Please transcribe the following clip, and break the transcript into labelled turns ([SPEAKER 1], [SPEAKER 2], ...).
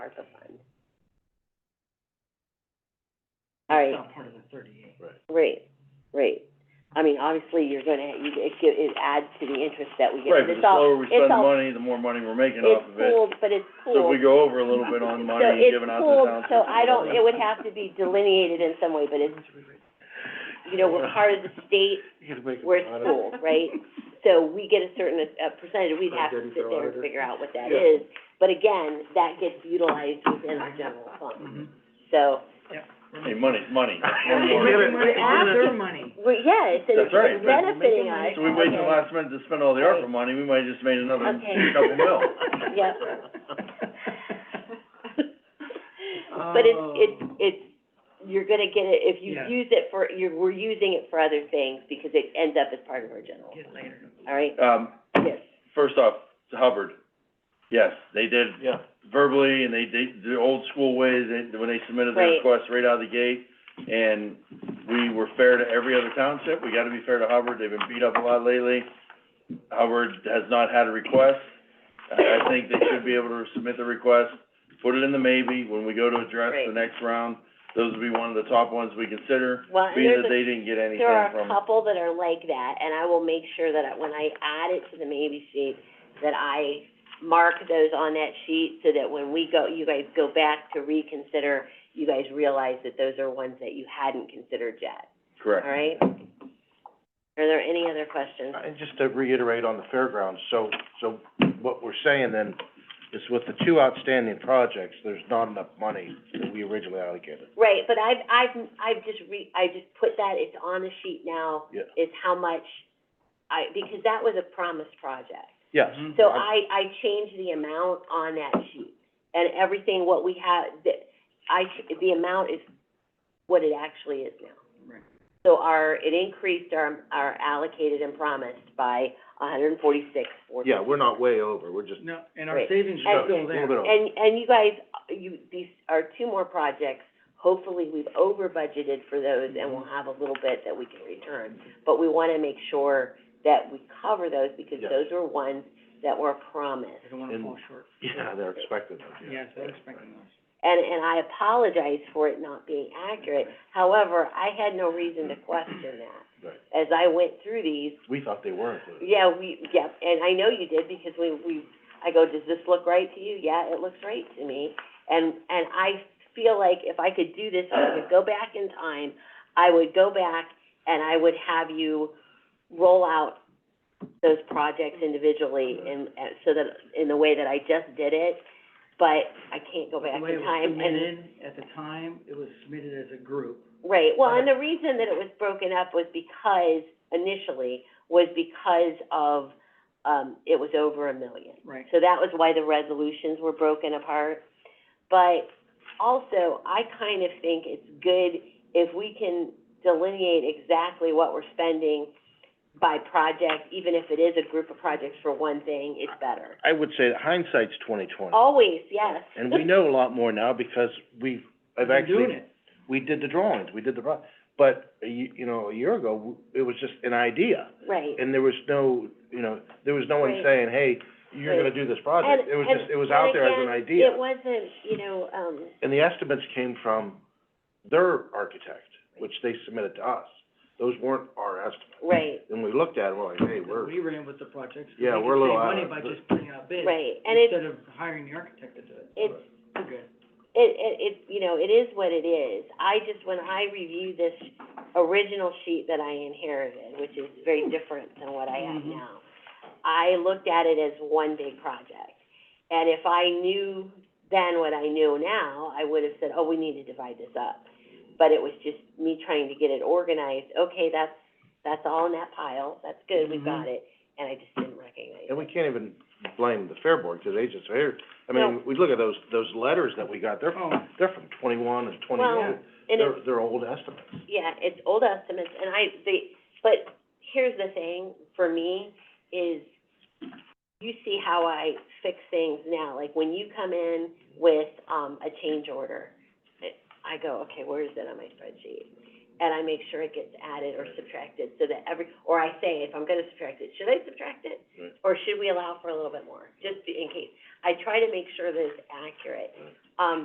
[SPEAKER 1] of the fund. All right.
[SPEAKER 2] Not part of the thirty-eight.
[SPEAKER 1] Right, right. I mean, obviously, you're gonna, you, it, gi- it adds to the interest that we get.
[SPEAKER 3] Right, but the
[SPEAKER 1] It's all-
[SPEAKER 3] slower we
[SPEAKER 1] it's
[SPEAKER 3] spend the
[SPEAKER 1] all-
[SPEAKER 3] money, the more money we're making off of
[SPEAKER 1] It's
[SPEAKER 3] it.
[SPEAKER 1] pooled, but it's pooled.
[SPEAKER 3] So if we go over a little bit on money
[SPEAKER 1] So it's
[SPEAKER 3] given out to
[SPEAKER 1] pooled,
[SPEAKER 3] towns.
[SPEAKER 1] So I don't, it would have to be delineated in some way, but it's, you know, we're part of the state,
[SPEAKER 4] You gotta make it
[SPEAKER 1] we're
[SPEAKER 4] honest.
[SPEAKER 1] school, right? So we get a certain, uh, percentage, we'd
[SPEAKER 4] I
[SPEAKER 1] have to
[SPEAKER 4] didn't
[SPEAKER 1] sit
[SPEAKER 4] go
[SPEAKER 1] there and
[SPEAKER 4] either.
[SPEAKER 1] figure out what that is.
[SPEAKER 4] Yeah.
[SPEAKER 1] But again, that gets utilized within our general fund,
[SPEAKER 4] Mhm.
[SPEAKER 1] so,
[SPEAKER 3] Hey, money's money.
[SPEAKER 4] Yeah,
[SPEAKER 2] We're making money off their money.
[SPEAKER 1] well, yeah, it's,
[SPEAKER 3] That's right,
[SPEAKER 1] it's
[SPEAKER 3] but-
[SPEAKER 1] benefiting
[SPEAKER 2] Making money
[SPEAKER 1] us.
[SPEAKER 3] So we wait till
[SPEAKER 1] Okay.
[SPEAKER 3] last minute to spend all the ARPA money, we might have just made another
[SPEAKER 1] Okay.
[SPEAKER 3] couple mil.
[SPEAKER 1] Yep. But it's, it's,
[SPEAKER 4] Oh.
[SPEAKER 1] it's, you're gonna get it, if you
[SPEAKER 2] Yeah.
[SPEAKER 1] use it for, you're, we're using it for other things, because it ends up as part of our general,
[SPEAKER 2] Get later.
[SPEAKER 1] all right?
[SPEAKER 3] Um,
[SPEAKER 1] Yes,
[SPEAKER 3] first off, Hubbard, yes, they did
[SPEAKER 4] Yeah,
[SPEAKER 3] verbally, and they, they, the old school ways, they, when they submitted their
[SPEAKER 1] Right.
[SPEAKER 3] request right out of the gate. And we were fair to every other township, we gotta be fair to Hubbard, they've been beat up a lot lately. Hubbard has not had a request, I, I think they should be able to submit the request, put it in the maybe, when we go to address the
[SPEAKER 1] Right.
[SPEAKER 3] next round, those will be one of the top ones we consider,
[SPEAKER 1] well, and
[SPEAKER 3] being
[SPEAKER 1] there's
[SPEAKER 3] that
[SPEAKER 1] Uh, a,
[SPEAKER 3] they didn't get anything
[SPEAKER 1] there are a
[SPEAKER 3] from.
[SPEAKER 1] couple that are like that, and I will make sure that I- when I add it to the maybe sheet, that I mark those on that sheet, so that when we go, you guys go back to reconsider, you guys realize that those are ones that you hadn't considered yet, all
[SPEAKER 3] Correct.
[SPEAKER 1] right? Are there any other questions?
[SPEAKER 4] and just to reiterate on the fairgrounds, so, so what we're saying then is with the two outstanding projects, there's not enough money that we originally allocated.
[SPEAKER 1] Right, but I've, I've, I've just re, I just put that, it's on the sheet now,
[SPEAKER 4] Yeah.
[SPEAKER 1] is how much I, because that was a promised project.
[SPEAKER 4] Yes.
[SPEAKER 3] Mhm.
[SPEAKER 1] So I, I changed the amount on that sheet, and everything, what we have, the, I, ch- the amount is what it actually is now.
[SPEAKER 2] Right.
[SPEAKER 1] So our, it increased our, our allocated and promised by a hundred and forty-six, four.
[SPEAKER 4] Yeah, we're not way over, we're just,
[SPEAKER 2] No, and our
[SPEAKER 1] Right.
[SPEAKER 2] savings
[SPEAKER 1] And-
[SPEAKER 2] are still
[SPEAKER 4] A
[SPEAKER 2] there.
[SPEAKER 4] little bit over.
[SPEAKER 1] And, and you guys, you, these are two more projects, hopefully we've over budgeted for those and we'll have a little bit that we can return. But we wanna make sure that we cover those because
[SPEAKER 4] Yes.
[SPEAKER 1] those are ones that were promised.
[SPEAKER 2] I don't wanna
[SPEAKER 4] And-
[SPEAKER 2] fall short.
[SPEAKER 4] yeah, they're expected, yeah.
[SPEAKER 2] Yes, they're expecting us.
[SPEAKER 1] And, and I apologize for it not being accurate, however, I had no reason to question that.
[SPEAKER 4] Right.
[SPEAKER 1] As I went through these,
[SPEAKER 4] We thought they were included.
[SPEAKER 1] yeah, we, yeah, and I know you did, because we, we, I go, does this look right to you? Yeah, it looks right to me. And, and I feel like if I could do this, if I could go back in time, I would go back and I would have you roll out those projects individually and, uh, so that, in the way that I just did it, but I can't go back
[SPEAKER 2] The way
[SPEAKER 1] in
[SPEAKER 2] it
[SPEAKER 1] time
[SPEAKER 2] was
[SPEAKER 1] and.
[SPEAKER 2] submitted, at the time, it was submitted as a group.
[SPEAKER 1] Right, well, and the reason that it was broken up was because, initially, was because of, um, it was over a million.
[SPEAKER 2] Right.
[SPEAKER 1] So that was why the resolutions were broken apart. But also, I kind of think it's good if we can delineate exactly what we're spending by project, even if it is a group of projects for one thing, it's better.
[SPEAKER 4] I would say that hindsight's twenty twenty.
[SPEAKER 1] Always, yes.
[SPEAKER 4] And we know a lot more now because we've, I've
[SPEAKER 2] We're
[SPEAKER 4] actually.
[SPEAKER 2] doing it.
[SPEAKER 4] We did the drawings, we did the pro- but, a ye- you know, a year ago, w- it was just an idea.
[SPEAKER 1] Right.
[SPEAKER 4] And there was no, you know, there was no one
[SPEAKER 1] Right.
[SPEAKER 4] saying, hey, you're gonna
[SPEAKER 1] Right.
[SPEAKER 4] do this project.
[SPEAKER 1] And-
[SPEAKER 4] It was
[SPEAKER 1] and-
[SPEAKER 4] just, it was out there as an
[SPEAKER 1] and again,
[SPEAKER 4] idea.
[SPEAKER 1] It wasn't, you know, um,
[SPEAKER 4] And the estimates came from their architect, which they submitted to us. Those weren't our estimates.
[SPEAKER 1] right.
[SPEAKER 4] And we looked at it, we're like, hey, we're,
[SPEAKER 2] We ran with the projects, 'cause we
[SPEAKER 4] Yeah, we're a
[SPEAKER 2] could
[SPEAKER 4] little
[SPEAKER 2] save
[SPEAKER 4] out
[SPEAKER 2] money
[SPEAKER 4] of
[SPEAKER 2] by
[SPEAKER 4] the-
[SPEAKER 2] just putting out bids.
[SPEAKER 1] Right, and it's,
[SPEAKER 2] Instead of hiring the architect to do it.
[SPEAKER 1] it's,
[SPEAKER 2] We're good.
[SPEAKER 1] it, it, it, you know, it is what it is. I just, when I review this original sheet that I inherited, which is very different than what I have
[SPEAKER 2] Mhm.
[SPEAKER 1] now, I looked at it as one big project. And if I knew then what I know now, I would have said, oh, we need to divide this up. But it was just me trying to get it organized. Okay, that's, that's all in that pile. That's good, we've got it. And I just didn't recognize Mm-hmm. it.
[SPEAKER 4] and we can't even blame the Fair Board, because they just, here, I
[SPEAKER 1] No.
[SPEAKER 4] mean, we look at those, those letters that we got, they're,
[SPEAKER 2] Oh,
[SPEAKER 4] they're from twenty-one and
[SPEAKER 1] Well,
[SPEAKER 4] twenty-two.
[SPEAKER 1] and it's-
[SPEAKER 4] They're, they're old estimates.
[SPEAKER 1] Yeah, it's old estimates, and I, they, but here's the thing, for me, is you see how I fix things now, like when you come in with, um, a change order, I go, okay, where is it on my spreadsheet? and I make sure it gets added or subtracted, so that every, or I say, if I'm gonna subtract it, should I subtract it?
[SPEAKER 3] Right.
[SPEAKER 1] Or should we allow for a little bit more, just in case? I try to make sure that it's accurate. Um,